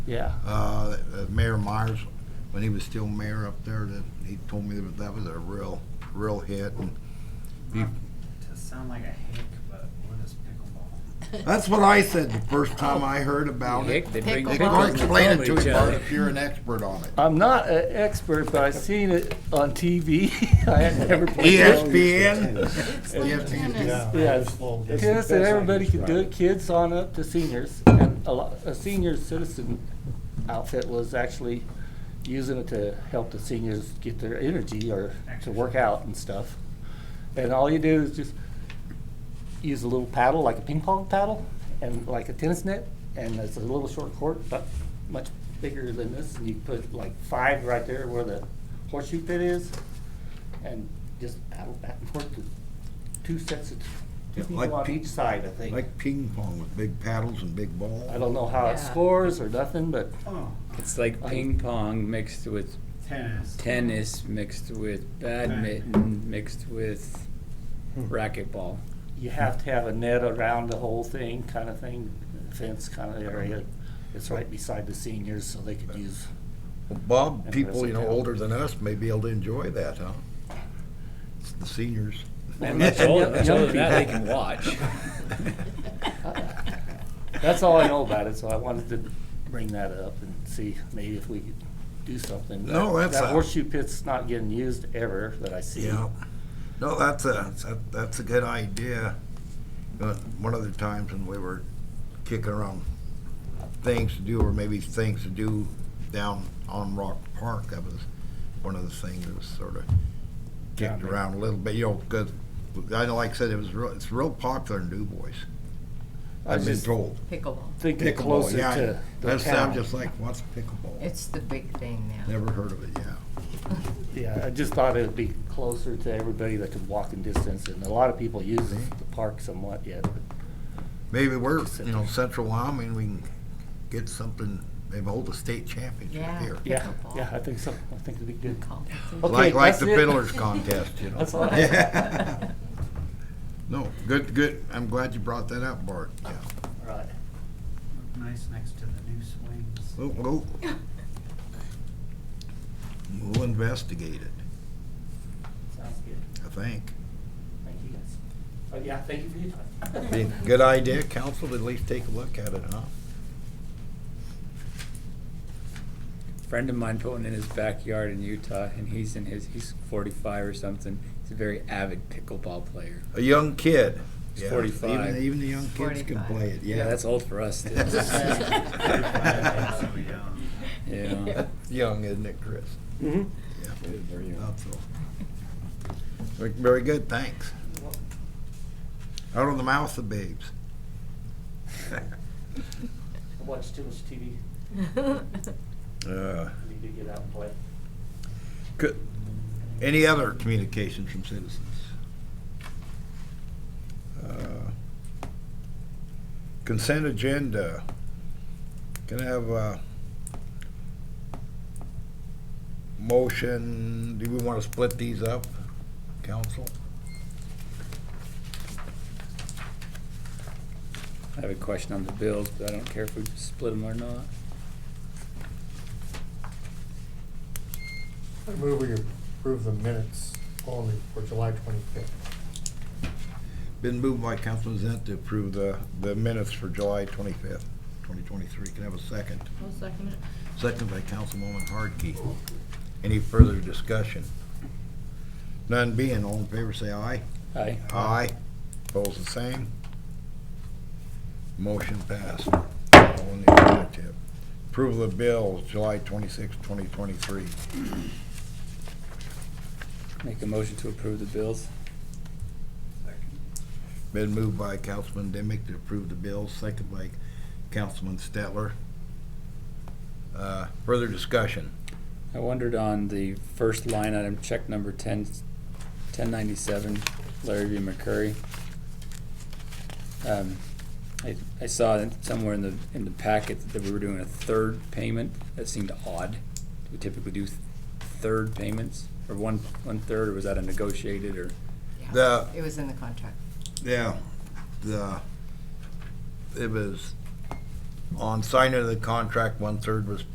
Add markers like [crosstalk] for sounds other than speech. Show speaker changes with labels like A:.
A: Yeah.
B: Uh, uh, Mayor Myers, when he was still mayor up there, that he told me that that was a real, real hit. And he-
C: To sound like a hick, but what is pickleball?
B: That's what I said the first time I heard about it.
D: Heck, they
E: Pickle
D: bring
B: They
E: Pickle
D: pickles
B: can't
D: and
B: explain it
D: throw
B: to
D: them
B: you,
D: each
B: Bart,
D: other.
B: if you're an expert on it.
A: I'm not an expert, but I've seen it on TV. [laughs] I had never played it.
B: ESPN? E
E: Tennis.
A: Yeah,
C: Oh,
A: tennis and everybody could do it, kids on up to seniors. And a lot, a senior citizen outfit was actually using it to help the seniors get their energy or to work out and stuff. And all you do is just use a little paddle, like a ping pong paddle, and like a tennis net, and it's a little short court, but much bigger than this. And you put like five right there where the horseshoe pit is, and just paddle back and forth to two sets of two
B: Yeah,
A: people
B: like
A: on
B: pe-
A: each side, I think.
B: Like ping pong with big paddles and big
A: I
B: balls.
A: don't know how
E: Yeah.
A: it scores or nothing, but
C: Oh,
D: It's like ping pong mixed with
C: tennis.
D: tennis, mixed with badminton, mixed with racquetball.
A: you have to have a net around the whole thing, kind of thing, fence kind of area. It's right beside the seniors, so they could use.
B: Bob, people, you know, older than us may be able to enjoy that, huh? It's the seniors.
D: And much
B: [laughs]
D: older, much older than that, they can watch.
A: That's all I know about it, so I wanted to bring that up and see maybe if we could do something.
B: No,
A: That-
B: that's
A: That
B: a-
A: horseshoe pit's not getting used ever that I see.
B: Yeah. No, that's a, that- that's a good idea. Uh, One of the times when we were kicking around things to do, or maybe things to do down on Rock Park, that was one of the things that was sort of kicked around a little bit, you know, because, I know, like I said, it was real, it's real popular in Du Bois.
A: I
B: I've been
A: just
B: told.
E: Pickleball.
A: thinking
B: Pickleball,
A: closer
B: yeah.
A: to the
B: That sounds
A: town.
B: just like, what's pickleball?
E: It's the big thing now.
B: Never heard of it, yeah.
A: Yeah, I just thought it'd be closer to everybody that could walk in distance, and a lot of people use the park somewhat yet.
B: Maybe we're, you know, Central Wyoming, we can get something, maybe hold a state championship
E: Yeah.
B: here.
A: Yeah,
E: Pickleball.
A: yeah, I think so. I think it'd be good.
E: Competition.
A: Okay,
B: Like, like
A: that's
B: the
A: it.
B: fiddlers contest, you
A: [laughs]
B: know.
A: That's all I
B: [laughs] No, good, good. I'm glad you brought that up, Bart. Yeah.
A: Right.
C: Look Nice next to the new swings.
B: [laughs] We'll, we'll, we'll investigate it,
A: Sounds good.
B: I think.
A: Thank you guys. But yeah, thank you for your time.
B: Be a Good idea, council, to at least take a look at it, huh?
D: Friend of mine put one in his backyard in Utah, and he's in his, he's 45 or something. He's a very avid pickleball player.
B: A young kid.
D: He's
B: Yeah,
D: 45.
B: Even, even the young kids can
E: 45.
B: play it, yeah.
D: Yeah, that's old for us. dude.
E: Yeah. [laughs]
D: Yeah.
B: [laughs] Young, isn't it, Chris?
A: Mhm.
B: Yeah, thought so. Very- Very good, thanks. Out of the mouth of babes.
A: I watch too much TV.
B: Uh,
A: I need to get out and play.
B: Good. Any other communications from citizens? Uh, Consent agenda. Can I have a motion? Do we want to split these up, council?
D: I have a question on the bills, but I don't care if we split them or not.
F: I move we approve the minutes only for July twenty-fifth.
B: Been moved by Councilman Zent to approve the, the minutes for July twenty-fifth, twenty twenty-three. Can I have a second?
E: I'll second it.
B: Second by Councilwoman Hardkey. Any further discussion? None being, all in favor, say aye.
D: Aye.
B: Aye. Opposed, the same. Motion passed. All in the affirmative. Approval of bills, July twenty-sixth, twenty twenty-three.
D: Make a motion to approve the bills.
B: Been moved by Councilman Demick to approve the bill, second by Councilman Stetler. Uh, Further discussion?
D: I wondered on the first line item, check number 10, 1097, Larry B. McCurry. Um, I, I saw that somewhere in the, in the packet that we were doing a third payment. That seemed odd. We typically do th- third payments, or one, one-third, or was that a negotiated, or?
E: Yeah.
B: The-
E: It was in the contract.
B: Yeah. The, it was on signing of the contract, one-third was